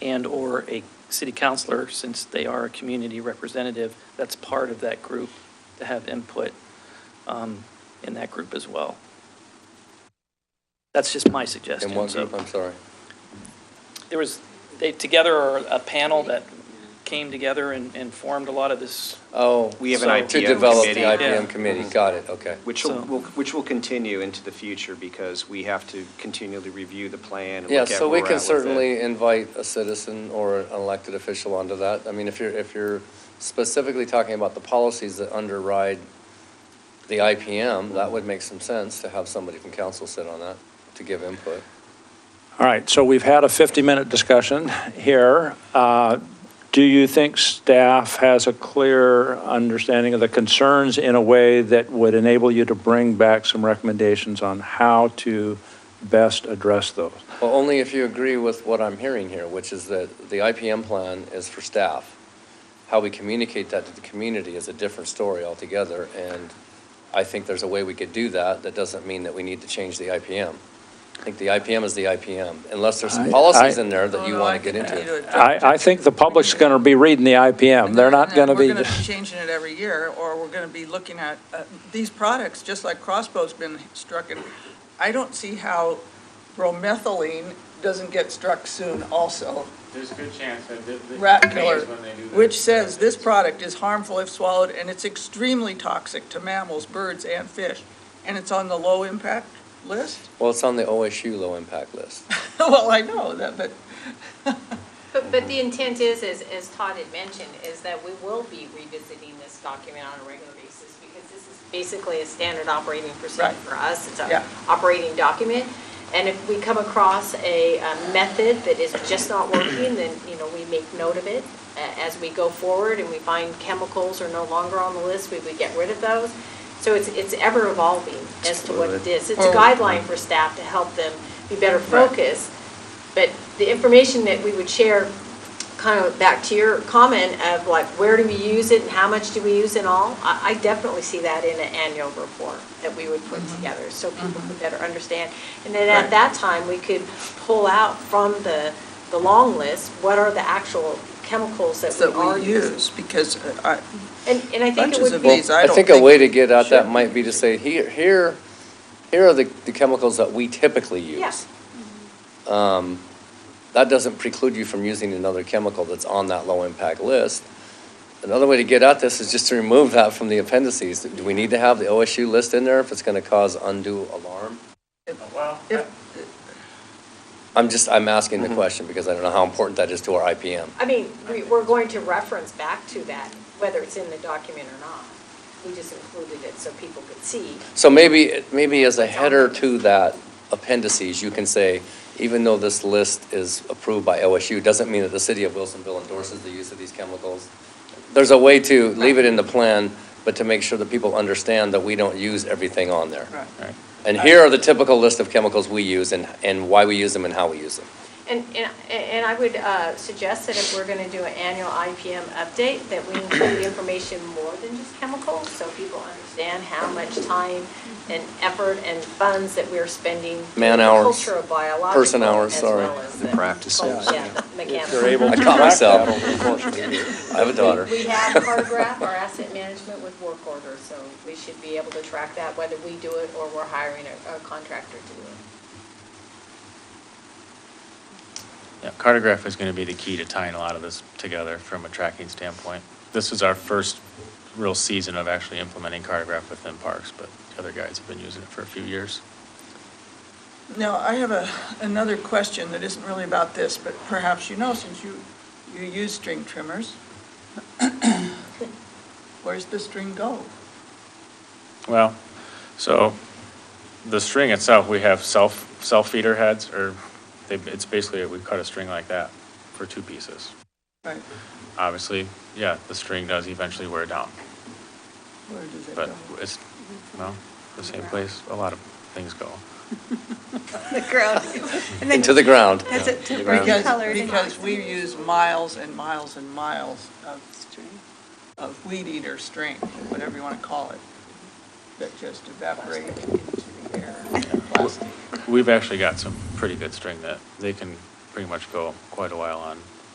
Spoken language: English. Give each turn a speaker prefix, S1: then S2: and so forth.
S1: and/or a city councillor, since they are a community representative, that's part of that group, to have input um, in that group as well. That's just my suggestion.
S2: In one
S1: so-
S2: group, I'm sorry.
S1: there was, they, together, are a panel that came together and, and formed a lot of this,
S2: Oh.
S3: We have
S1: So-
S2: To
S3: an IPM committee. Mm-hmm.
S2: develop the
S4: Yeah.
S2: IPM committee, got it, okay.
S3: Which
S1: So-
S3: will- will, which will continue into the future because we have to continually review the plan and
S2: Yeah,
S3: look at
S2: so
S3: where we're
S2: we
S3: at
S2: can
S3: with it.
S2: certainly invite a citizen or an elected official onto that. I mean, if you're, if you're specifically talking about the policies that underride the IPM, that would make some sense to have somebody from council sit on that to give input.
S5: All right, so we've had a 50-minute discussion here. Uh, Do you think staff has a clear understanding of the concerns in a way that would enable you to bring back some recommendations on how to best address those?
S2: Well, only if you agree with what I'm hearing here, which is that the IPM plan is for staff. How we communicate that to the community is a different story altogether, and I think there's a way we could do that. That doesn't mean that we need to change the IPM. I think the IPM is the IPM, unless there's some
S5: I-
S2: policies
S5: I-
S2: in there that you
S4: No, no, I
S2: want to get
S4: think we need
S2: into.
S4: to adopt
S5: I, I
S4: it.
S5: think the public's going to be reading the IPM. They're not
S4: And
S5: going to be...
S4: We're going to be changing it every year, or we're going to be looking at, uh, these products, just like Crossbow's been struck in. I don't see how bromethylene doesn't get struck soon also,
S6: There's a good chance that the. the-
S4: Rat
S6: May is
S4: killer,
S6: when they do their-
S4: which says this product is harmful if swallowed, and it's extremely toxic to mammals, birds, and fish, and it's on the low-impact list?
S2: Well, it's on the OSU low-impact list.
S4: Well, I know that, but
S7: But, but the intent is, is, as Todd had mentioned, is that we will be revisiting this document on a regular basis because this is basically a standard operating procedure
S4: Right.
S7: for us. It's
S4: Yeah.
S7: a operating document. And if we come across a, uh method that is just not working, then, you know, we make note of it. A- As we go forward and we find chemicals are no longer on the list, we would get rid of those. So it's, it's ever evolving as to what it is. It's a
S4: Well-
S7: guideline for staff to help them be better focused. But the information that we would share, kind of back to your comment of like, where do we use it and how much do we use and all? I, I definitely see that in an annual report that we would
S4: Mm-hmm.
S7: put together so people could better understand. And then at that time, we could pull out from the, the long list, what are the actual chemicals that we
S4: that
S7: are
S4: we
S7: using?
S4: use, because uh, I,
S7: And, and I think it
S4: bunches
S7: would
S4: of
S7: be.
S4: these, I
S2: I
S4: don't
S2: think
S4: think.
S2: a way to get at that
S4: Sure.
S2: might be to say, here, here, here are the, the chemicals that we typically use.
S7: Yeah.
S2: Um, That doesn't preclude you from using another chemical that's on that low-impact list. Another way to get at this is just to remove that from the appendices. Do we need to have the OSU list in there if it's going to cause undue alarm?
S6: Well,
S4: If-
S2: I'm just, I'm asking the question because I don't know how important that is to our IPM.
S7: I mean, we, we're going to reference back to that, whether it's in the document or not. We just included it so people could see.
S2: So maybe, maybe as a header to that appendices, you can say, even though this list is approved by OSU, doesn't mean that the city of Wilsonville endorses the use of these chemicals. There's a way to leave it in the plan, but to make sure that people understand that we don't use everything on there.
S4: Right.
S6: Right.
S2: And here are the typical list of chemicals we use and, and why we use them and how we use them.
S7: And, and, and I would uh, suggest that if we're going to do an annual IPM update, that we include information more than just chemicals, so people understand how much time and effort and funds that we're spending. in the
S2: Man-hours.
S7: Culture of biological.
S2: Person hours,
S7: as
S2: sorry.
S7: well as
S3: The practices.
S7: Yeah, the mechanics.
S2: I caught myself. I have a daughter.
S7: We have Cartograph, our asset management with work order, so we should be able to track that, whether we do it or we're hiring a a contractor to do it.
S6: yeah, cartograph is going to be the key to tying a lot of this together from a tracking standpoint. This is our first real season of actually implementing cartograph within parks, but the other guys have been using it for a few years.
S4: Now, I have a, another question that isn't really about this, but perhaps you know, since you, you use string trimmers. Where's the string go?
S6: Well, so the string itself, we have self, self feeder heads, or they, it's basically, we cut a string like that for two pieces.
S4: Right,
S6: Obviously, yeah, the string does eventually wear down,
S4: where does it
S6: but
S4: go?
S6: it's, well, the same place a lot of things go.
S8: The ground. And then
S2: Into the ground.
S8: That's it, to bring
S2: Because-
S8: colors and
S4: Because, because we
S8: oxygen.
S4: use miles and miles and miles of,
S8: String.
S4: of weed eater string, whatever you want to call it, that just evaporate into the air, plastic.
S6: We've actually got some pretty good string that they can pretty much go quite a while on